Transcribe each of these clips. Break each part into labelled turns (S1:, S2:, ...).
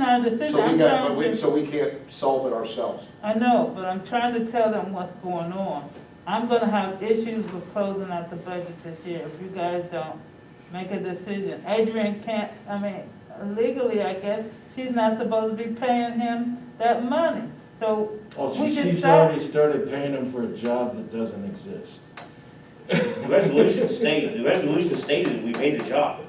S1: trying to say,
S2: So we
S1: I'm
S2: got, but
S1: trying
S2: we, so
S1: to,
S2: we can't solve it ourselves.
S1: I know, but I'm trying to tell them what's going on. I'm gonna have issues with closing out the budget this year if you guys don't make a decision. Adrian can't, I mean, legally, I guess, she's not supposed to be paying him that money. So
S3: Oh,
S1: we
S3: she,
S1: should
S3: she's
S1: stop.
S3: already started paying him for a job that doesn't exist.
S4: The resolution stated, the resolution stated we made the job.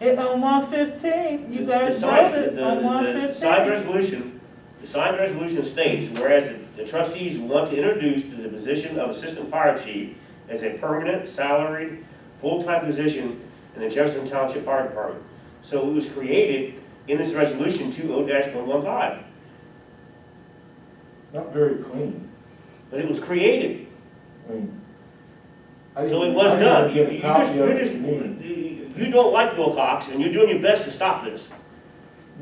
S1: It, on one fifteen, you
S4: The-
S1: guys
S4: the sign-
S1: voted
S4: the-
S1: on
S4: the-
S1: one
S4: The signed
S1: fifteen.
S4: resolution, the signed resolution states, whereas the- the trustees want to introduce to the position of assistant fire chief as a permanent salaried, full-time position in the Jefferson Township Fire Department. So it was created in this resolution 20-115,
S3: Not very clean.
S4: but it was created.
S3: I mean. I
S4: So it
S3: didn't-
S4: was
S3: I didn't
S4: done, you,
S3: get a
S4: you
S3: copy
S4: just,
S3: of
S4: you're
S3: it.
S4: just, you don't like Wilcox, and you're doing your best to stop this.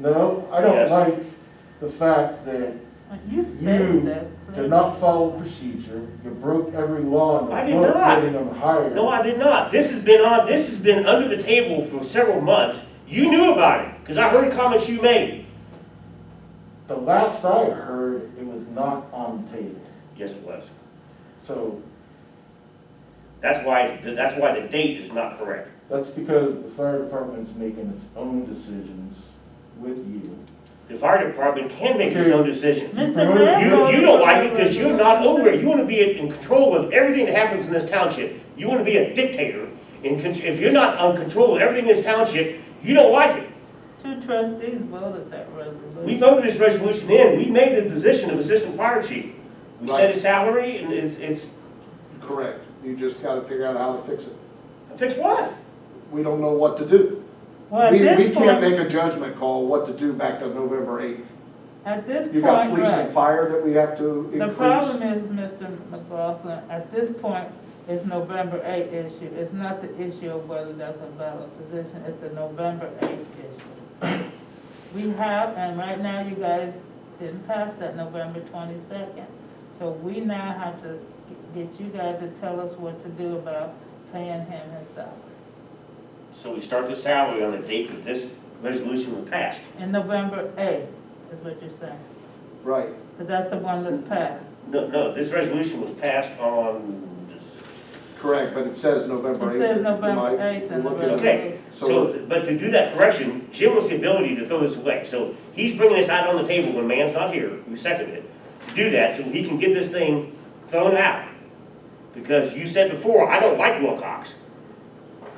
S3: No, I
S4: Yes.
S3: don't like the fact that
S1: You
S3: You
S1: said that.
S3: did not follow procedure, you broke every law in
S4: I
S3: the
S4: did
S3: book
S4: not.
S3: getting them hired.
S4: No, I did not, this has been on, this has been under the table for several months, you knew about it, because I heard comments you made.
S3: The last I heard, it was not on the table,
S4: Yes, it was,
S3: so
S4: that's why, that's why the date is not correct.
S3: that's because the fire department's making its own decisions with you.
S4: The fire department can make its own decisions.
S1: Mr.
S3: You-
S1: Ram
S4: You,
S1: voted
S4: you don't
S1: for
S4: like it
S1: the
S4: because you're not
S1: resolution.
S4: over it. You want to be in control of everything that happens in this township. You want to be a dictator. And con- if you're not on control of everything in this township, you don't like it.
S1: Two trustees voted that resolution.
S4: We voted this resolution in. We made the position of assistant fire chief. We set his salary and it's, it's,
S2: Correct. You just gotta figure out how to fix it.
S4: fix what?
S2: We don't know what to do.
S1: Well, at
S2: We, we
S1: this
S2: can't
S1: point,
S2: make a judgment call what to do back to November eighth.
S1: at this
S2: You
S1: point,
S2: got police and
S1: right.
S2: fire that we have to
S1: The
S2: increase.
S1: problem is, Mr. McLaughlin, at this point, it's November eighth issue. It's not the issue of whether that's a valid position, it's the November eighth issue. We have, and right now you guys didn't pass that November twenty-second. So we now have to g- get you guys to tell us what to do about paying him his salary
S4: So we start the salary on the date that this resolution was passed.
S1: in November eighth, is what you're saying.
S2: Right.
S1: Because that's the one that's passed.
S4: No, no, this resolution was passed on, just-
S2: Correct, but it says November
S1: It
S2: eighth.
S1: says November eighth and November
S4: Okay.
S1: eighth.
S4: so, but to do that correction, Jim wants the ability to throw this away. So he's bringing this out on the table when man's not here, who seconded it, to do that so he can get this thing thrown out. Because you said before, I don't like Wilcox.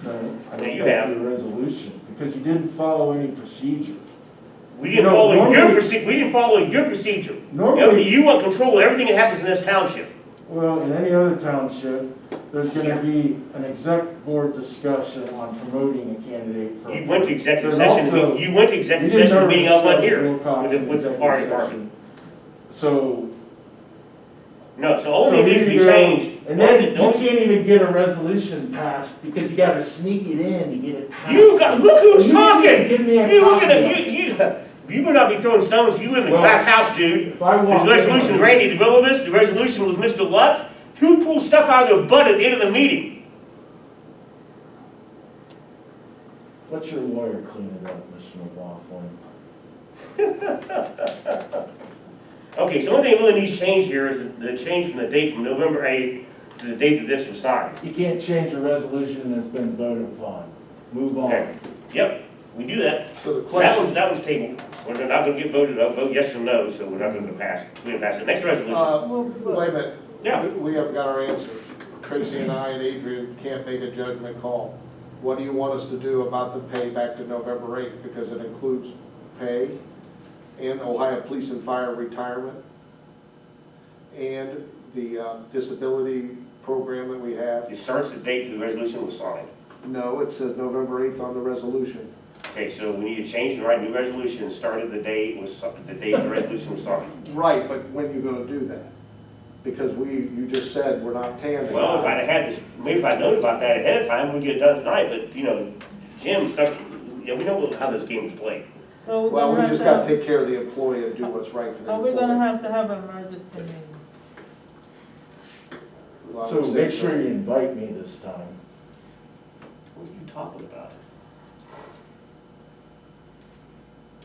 S3: No, I
S4: Yeah,
S3: don't
S4: you
S3: like
S4: have.
S3: the resolution, because you didn't follow any procedure.
S4: We didn't
S3: No,
S4: follow your
S3: normally-
S4: proce, we didn't follow your procedure.
S3: Normally-
S4: You want control of everything that happens in this township.
S3: Well, in any other township, there's gonna be an exec board discussion on promoting a candidate for.
S4: You went to
S3: There's
S4: executive session,
S3: also-
S4: you went to
S3: You
S4: executive
S3: didn't
S4: session
S3: ever
S4: meeting on one
S3: discuss
S4: here
S3: Wilcox
S4: with the,
S3: in
S4: with the
S3: executive
S4: fire
S3: session.
S4: department.
S3: So.
S4: No, so
S3: so
S4: only needs
S3: here
S4: to be
S3: you go.
S4: changed.
S3: And then you
S4: Don't-
S3: can't even get a resolution passed because you gotta sneak it in to get it passed.
S4: You got, look who's
S3: You didn't even
S4: talking!
S3: give me a
S4: You looking
S3: copy of
S4: at,
S3: it.
S4: you, you, you better not be throwing stones, you live in a
S3: Well,
S4: glass house, dude.
S3: If I
S4: The
S3: walked in-
S4: resolution, Randy developed this, the resolution was Mr. Lutz, who pulled stuff out of their butt at the end of the meeting?
S3: Let your lawyer clean it up, Mr. McLaughlin.
S4: Okay, so the only thing that really needs change here is the- the change from the date from November eighth to the date that this was signed.
S3: You can't change a resolution that's been voted upon. Move
S4: Okay,
S3: on.
S4: yep, we do that.
S2: So the
S4: So that
S2: question,
S4: one's, that one's tabled, we're not gonna get voted, on. vote yes or no, so we're not gonna pass, we didn't pass it. Next resolution,
S2: uh, wait a minute.
S4: Yeah.
S2: We- We haven't got our answer. Tracy and I and Adrian can't make a judgment call. What do you want us to do about the pay back to November eighth? Because it includes pay and Ohio Police and Fire retirement and the uh, disability program that we have.
S4: it starts the date that the resolution was signed.
S2: No, it says November eighth on the resolution.
S4: Okay, so we need to change the right new resolution and start at the day it was, si- the date the resolution was signed.
S2: Right, but when you gonna do that? Because we, you just said we're not paying the
S4: Well, if
S2: guy.
S4: I'd have had this, maybe if I'd known about that ahead of time, we'd get it done tonight, but, you know, Jim stuck, yeah, we know how this game is played.
S1: So we're
S2: Well,
S1: gonna
S2: we
S1: have
S2: just
S1: to
S2: gotta
S1: have-
S2: take care of the employee and do what's right for the
S1: Are
S2: employee.
S1: we gonna have to have an emergency meeting?
S2: Well, I
S3: So
S2: would say
S3: make sure you invite me this time.
S4: What are you talking about?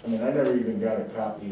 S3: I mean, I never even got a copy of